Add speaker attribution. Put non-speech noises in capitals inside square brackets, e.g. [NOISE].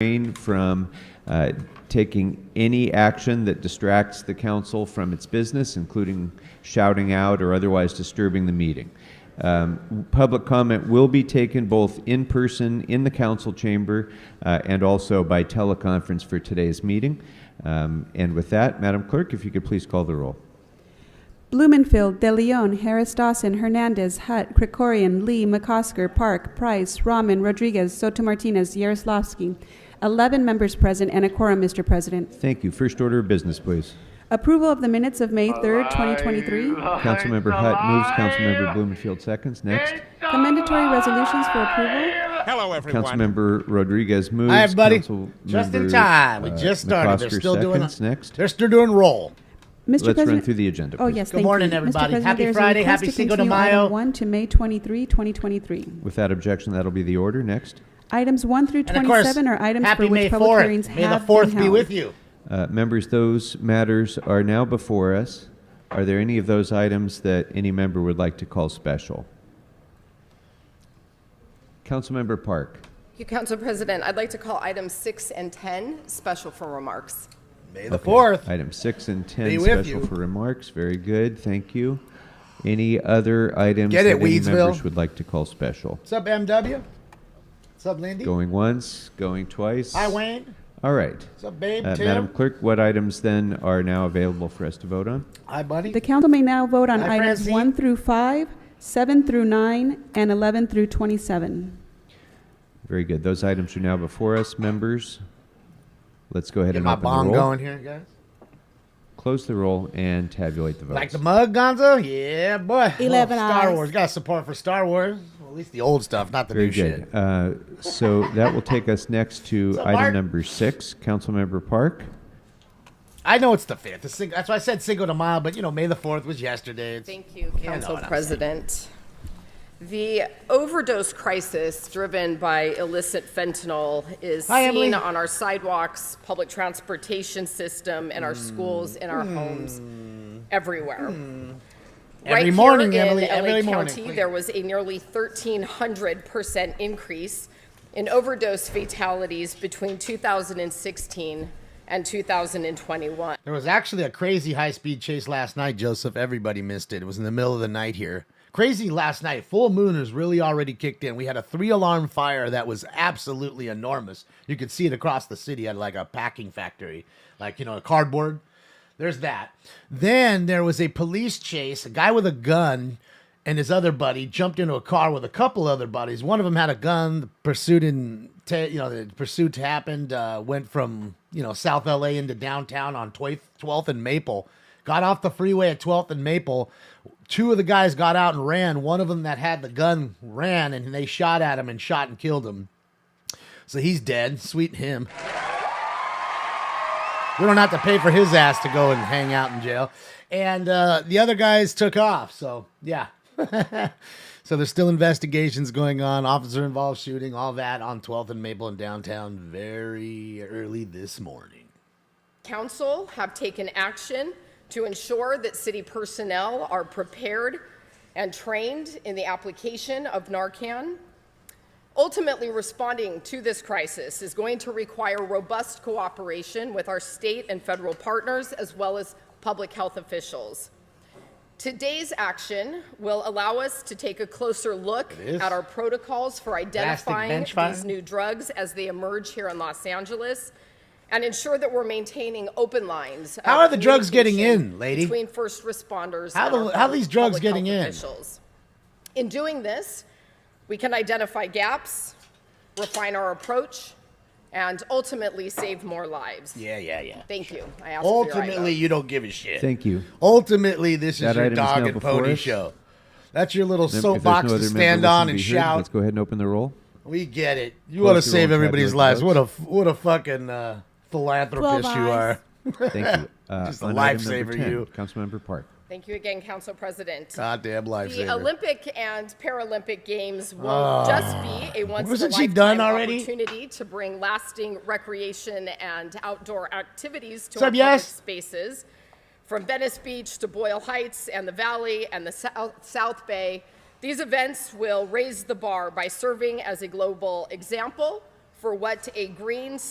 Speaker 1: refrain from uh, taking any action that distracts the council from its business, including shouting out or otherwise disturbing the meeting. Um, Public comment will be taken both in person in the council chamber uh, and also by teleconference for today's meeting. Um, And with that, Madam Clerk, if you could please call the roll.
Speaker 2: Blumenfield, De Leon, Harris Dawson, Hernandez, Hutt, Krikorian, Lee, McCosker, Park, Price, Rahman, Rodriguez, Soto Martinez, Yaroslavsky. 11 members present and a quorum, Mr. President.
Speaker 1: Thank you. First order of business, please.
Speaker 2: Approval of the minutes of May 3rd, 2023.
Speaker 1: Councilmember Hutt moves, Councilmember Blumenfield seconds. Next.
Speaker 2: Commendatory resolutions for approval.
Speaker 3: Hello, everyone.
Speaker 1: Councilmember Rodriguez moves.
Speaker 4: Hi, everybody.
Speaker 1: Councilmember,
Speaker 4: Just in time. We
Speaker 1: uh,
Speaker 4: just started. They're
Speaker 1: McCosker
Speaker 4: still doing.
Speaker 1: seconds. Next.
Speaker 4: They're still doing roll.
Speaker 2: Mr.
Speaker 1: Let's
Speaker 2: President.
Speaker 1: run through the agenda.
Speaker 2: Oh,
Speaker 1: please.
Speaker 2: yes,
Speaker 4: Good
Speaker 2: thank you.
Speaker 4: morning,
Speaker 2: Mr.
Speaker 4: everybody.
Speaker 2: President,
Speaker 4: Happy
Speaker 2: there's a
Speaker 4: Friday.
Speaker 2: request
Speaker 4: Happy
Speaker 2: to
Speaker 4: Cinco de
Speaker 2: continue item
Speaker 4: Mayo.
Speaker 2: 1 to May 23, 2023.
Speaker 1: Without objection, that'll be the order. Next.
Speaker 2: Items 1 through
Speaker 4: And of course,
Speaker 2: 27 are items
Speaker 4: happy
Speaker 2: for
Speaker 4: May
Speaker 2: which public
Speaker 4: 4th.
Speaker 2: hearings have
Speaker 4: May
Speaker 2: been held.
Speaker 4: the fourth be with you.
Speaker 1: Uh, members, those matters are now before us. Are there any of those items that any member would like to call special? Councilmember Park.
Speaker 5: Thank you, Council President. I'd like to call items six and 10 special for remarks.
Speaker 4: May the
Speaker 1: Okay.
Speaker 4: fourth.
Speaker 1: Item six and ten,
Speaker 4: Be with
Speaker 1: special
Speaker 4: you.
Speaker 1: for remarks. Very good. Thank you. Any other items
Speaker 4: Get
Speaker 1: that
Speaker 4: it,
Speaker 1: any members
Speaker 4: Weedsville.
Speaker 1: would like to call special?
Speaker 4: What's up, MW? What's up, Lindy?
Speaker 1: Going once, going twice.
Speaker 4: Hi, Wayne.
Speaker 1: All right.
Speaker 4: What's up, babe?
Speaker 1: Uh,
Speaker 4: Tim.
Speaker 1: Madam Clerk, what items then are now available for us to vote on?
Speaker 4: Hi, buddy.
Speaker 2: The council may now vote on
Speaker 4: Hi,
Speaker 2: items
Speaker 4: Francine.
Speaker 2: 1 through 5, 7 through 9, and 11 through 27.
Speaker 1: Very good. Those items are now before us, members. Let's go ahead
Speaker 4: Get
Speaker 1: and
Speaker 4: my
Speaker 1: open the
Speaker 4: bong
Speaker 1: roll.
Speaker 4: going here, guys.
Speaker 1: Close the roll and tabulate the votes.
Speaker 4: Like the mug, Gonzo? Yeah, boy.
Speaker 2: Eleven
Speaker 4: Love Star
Speaker 2: eyes.
Speaker 4: Wars. Got support for Star Wars. Well, at least the old stuff, not the
Speaker 1: Very
Speaker 4: new
Speaker 1: good.
Speaker 4: shit.
Speaker 1: Uh, so that will take us next to
Speaker 4: [LAUGHS] So,
Speaker 1: item
Speaker 4: Mark-
Speaker 1: number six, Councilmember Park.
Speaker 4: I know it's the fifth. It's Cin- that's why I said Cinco de Mayo, but you know, May the fourth was yesterday. It's-
Speaker 5: Thank you,
Speaker 4: know
Speaker 5: Council
Speaker 4: what I'm
Speaker 5: President. The overdose crisis driven by illicit fentanyl is
Speaker 4: Hi,
Speaker 5: seen
Speaker 4: Emily.
Speaker 5: on our sidewalks, public transportation system, in our schools, in our homes, everywhere.
Speaker 4: Hmm. Every
Speaker 5: right
Speaker 4: morning,
Speaker 5: here
Speaker 4: Emily,
Speaker 5: in LA
Speaker 4: every morning,
Speaker 5: County,
Speaker 4: please.
Speaker 5: there was a nearly 1,300% increase in overdose fatalities between 2016 and 2021.
Speaker 4: There was actually a crazy high speed chase last night, Joseph. Everybody missed it. It was in the middle of the night here. Crazy last night. Full moon has really already kicked in. We had a three alarm fire that was absolutely enormous. You could see it across the city at like a packing factory, like, you know, a cardboard. There's that. Then there was a police chase. A guy with a gun and his other buddy jumped into a car with a couple other buddies. One of them had a gun. The pursuit and you know the pursuit happened. Uh, went from you know South LA into downtown on Twelfth and Maple. Got off the freeway at Twelfth and Maple. Two of the guys got out and ran. One of them that had the gun ran, and they shot at him and shot and killed him. So he's dead. Sweet him. We don't have to pay for his ass to go and hang out in jail. And uh, the other guys took off. So, yeah. [LAUGHS] so there's still investigations going on, officer involved shooting, all that on 12th and Maple in downtown very early this morning.
Speaker 5: Council have taken action to ensure that city personnel are prepared and trained in the application of Narcan. Ultimately, responding to this crisis is going to require robust cooperation with our state and federal partners, as well as public health officials. Today's action will allow us to take a closer look
Speaker 4: is.
Speaker 5: at our protocols for identifying
Speaker 4: bench fire.
Speaker 5: these new drugs as they emerge here in Los Angeles and ensure that we're maintaining open lines. of
Speaker 4: How are the drugs getting
Speaker 5: communication
Speaker 4: in, lady?
Speaker 5: Between first responders.
Speaker 4: How
Speaker 5: and
Speaker 4: the-
Speaker 5: our
Speaker 4: how are these drugs
Speaker 5: public health
Speaker 4: getting in?
Speaker 5: Officials. In doing this, we can identify gaps, refine our approach, and ultimately save more lives.
Speaker 4: Yeah, yeah, yeah.
Speaker 5: Thank you. I ask for your eye
Speaker 4: Ultimately,
Speaker 5: vote.
Speaker 4: you don't give a shit.
Speaker 1: Thank you.
Speaker 4: Ultimately, this is
Speaker 1: That
Speaker 4: your
Speaker 1: item is now
Speaker 4: dog and
Speaker 1: before
Speaker 4: pony
Speaker 1: us.
Speaker 4: show. That's your little
Speaker 1: Mem- if there's
Speaker 4: soapbox
Speaker 1: no
Speaker 4: to
Speaker 1: other member
Speaker 4: stand
Speaker 1: wishing
Speaker 4: on
Speaker 1: to
Speaker 4: and
Speaker 1: be heard,
Speaker 4: shout.
Speaker 1: Let's go ahead and open the roll.
Speaker 4: We get it. You want to
Speaker 1: Close the
Speaker 4: save
Speaker 1: roll,
Speaker 4: everybody's
Speaker 1: tabulate
Speaker 4: lives.
Speaker 1: the
Speaker 4: What a f- what a fucking uh, philanthropist
Speaker 2: Twelve
Speaker 4: you
Speaker 2: eyes.
Speaker 4: are.
Speaker 1: Thank
Speaker 4: [LAUGHS]
Speaker 1: you. Uh,
Speaker 4: Just a
Speaker 1: on item number
Speaker 4: lifesaver,
Speaker 1: 10,
Speaker 4: you.
Speaker 1: Councilmember Park.
Speaker 5: Thank you again, Council President.
Speaker 4: Goddamn
Speaker 5: The
Speaker 4: lifesaver.
Speaker 5: Olympic and Paralympic Games will just be a once in a
Speaker 4: Ah. Wasn't she done
Speaker 5: lifetime
Speaker 4: already?
Speaker 5: opportunity to bring lasting recreation and outdoor activities to
Speaker 4: Sup,
Speaker 5: our public
Speaker 4: yes?
Speaker 5: spaces, from Venice Beach to Boyle Heights and the Valley and the South, South Bay. These events will raise the bar by serving as a global example for what a green,